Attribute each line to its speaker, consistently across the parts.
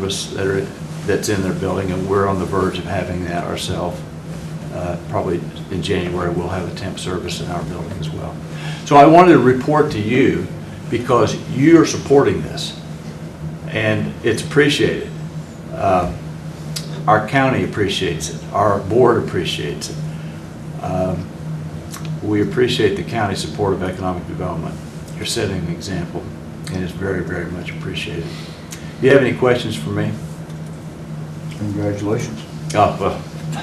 Speaker 1: service that are, that's in their building, and we're on the verge of having that ourselves. Uh, Probably in January, we'll have a temp service in our building as well. So I wanted to report to you because you're supporting this, and it's appreciated. Uh, Our county appreciates it, our board appreciates it. Um, We appreciate the county's support of economic development. You're setting an example, and it's very, very much appreciated. Do you have any questions for me?
Speaker 2: Congratulations.
Speaker 1: Oh, well,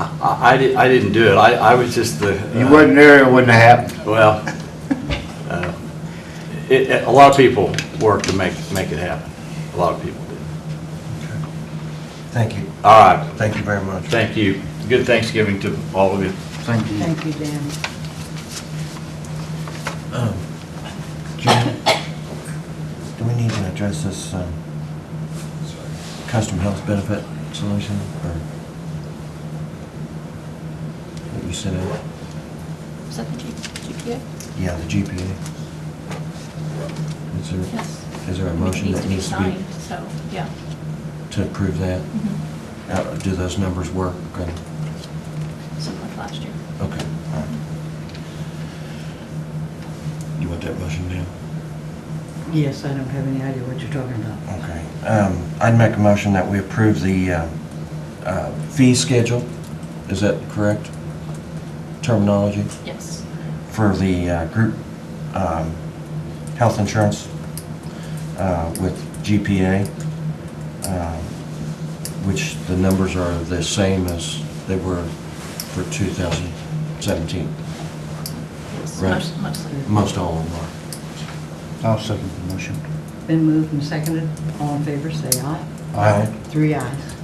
Speaker 1: I- I, I di- I didn't do it, I, I was just the. uh,
Speaker 2: You wasn't there, it wouldn't have happened.
Speaker 1: Well, uh, it, it- a lot of people work to make, make it happen, a lot of people do.
Speaker 3: Thank you.
Speaker 1: All right,
Speaker 3: Thank you very much.
Speaker 1: thank you, good Thanksgiving to all of you.
Speaker 2: Thank you.
Speaker 4: Thank you, Dan.
Speaker 3: Um, Jim, Do we need to address this um, custom health benefit solution or what you sent out?
Speaker 5: Is that the G- GPA?
Speaker 3: Yeah, the GPA. Is there,
Speaker 5: Yes.
Speaker 3: is there a
Speaker 5: It
Speaker 3: motion that needs to
Speaker 5: Needs to be signed, so, yeah.
Speaker 3: be, to approve that?
Speaker 5: Mhm.
Speaker 3: Uh, Do those numbers work? And-
Speaker 5: Something like last year.
Speaker 3: Okay. all right. You want that motion now?
Speaker 4: Yes, I don't have any idea what you're talking about.
Speaker 3: Okay. Um, I'd make a motion that we approve the uh, uh, fee schedule, is that correct terminology,
Speaker 5: Yes.
Speaker 3: for the uh, group um, health insurance uh, with GPA, um, which the numbers are the same as they were for 2017.
Speaker 5: Yes,
Speaker 3: Right.
Speaker 5: most- Mostly.
Speaker 3: Most all of them
Speaker 2: I'll second the motion.
Speaker 4: Been moved and seconded. All in favor, say aye.
Speaker 3: are. Aye.
Speaker 4: Three ayes.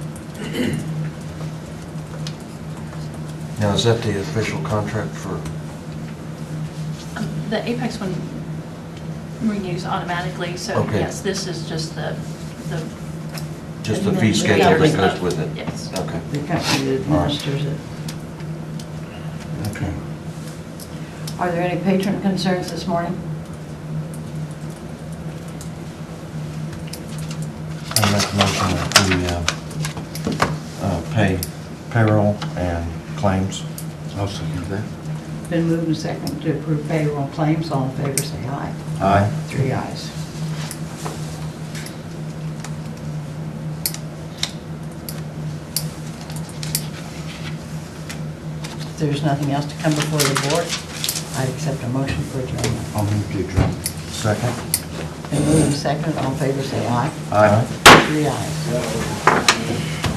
Speaker 3: Now, is that the official contract for,
Speaker 5: Um, The Apex one renews automatically, so
Speaker 3: Okay.
Speaker 5: yes, this is just the, the.
Speaker 3: just the fee schedule that goes with it?
Speaker 5: Yes.
Speaker 3: Okay.
Speaker 4: The company that
Speaker 3: All right.
Speaker 4: administers it.
Speaker 3: Okay.
Speaker 4: Are there any patron concerns this morning?
Speaker 3: I make a motion that we uh, uh, pay payroll and claims.
Speaker 2: I'll second that.
Speaker 4: Been moved and seconded to approve payroll claims. All in favor, say aye.
Speaker 2: Aye.
Speaker 4: Three ayes. If there's nothing else to come before the board, I'd accept a motion for adjournment.
Speaker 2: I'll move to adjourn.
Speaker 3: Second?
Speaker 4: Been moved and seconded. All in favor, say aye.
Speaker 2: Aye.
Speaker 4: Three ayes.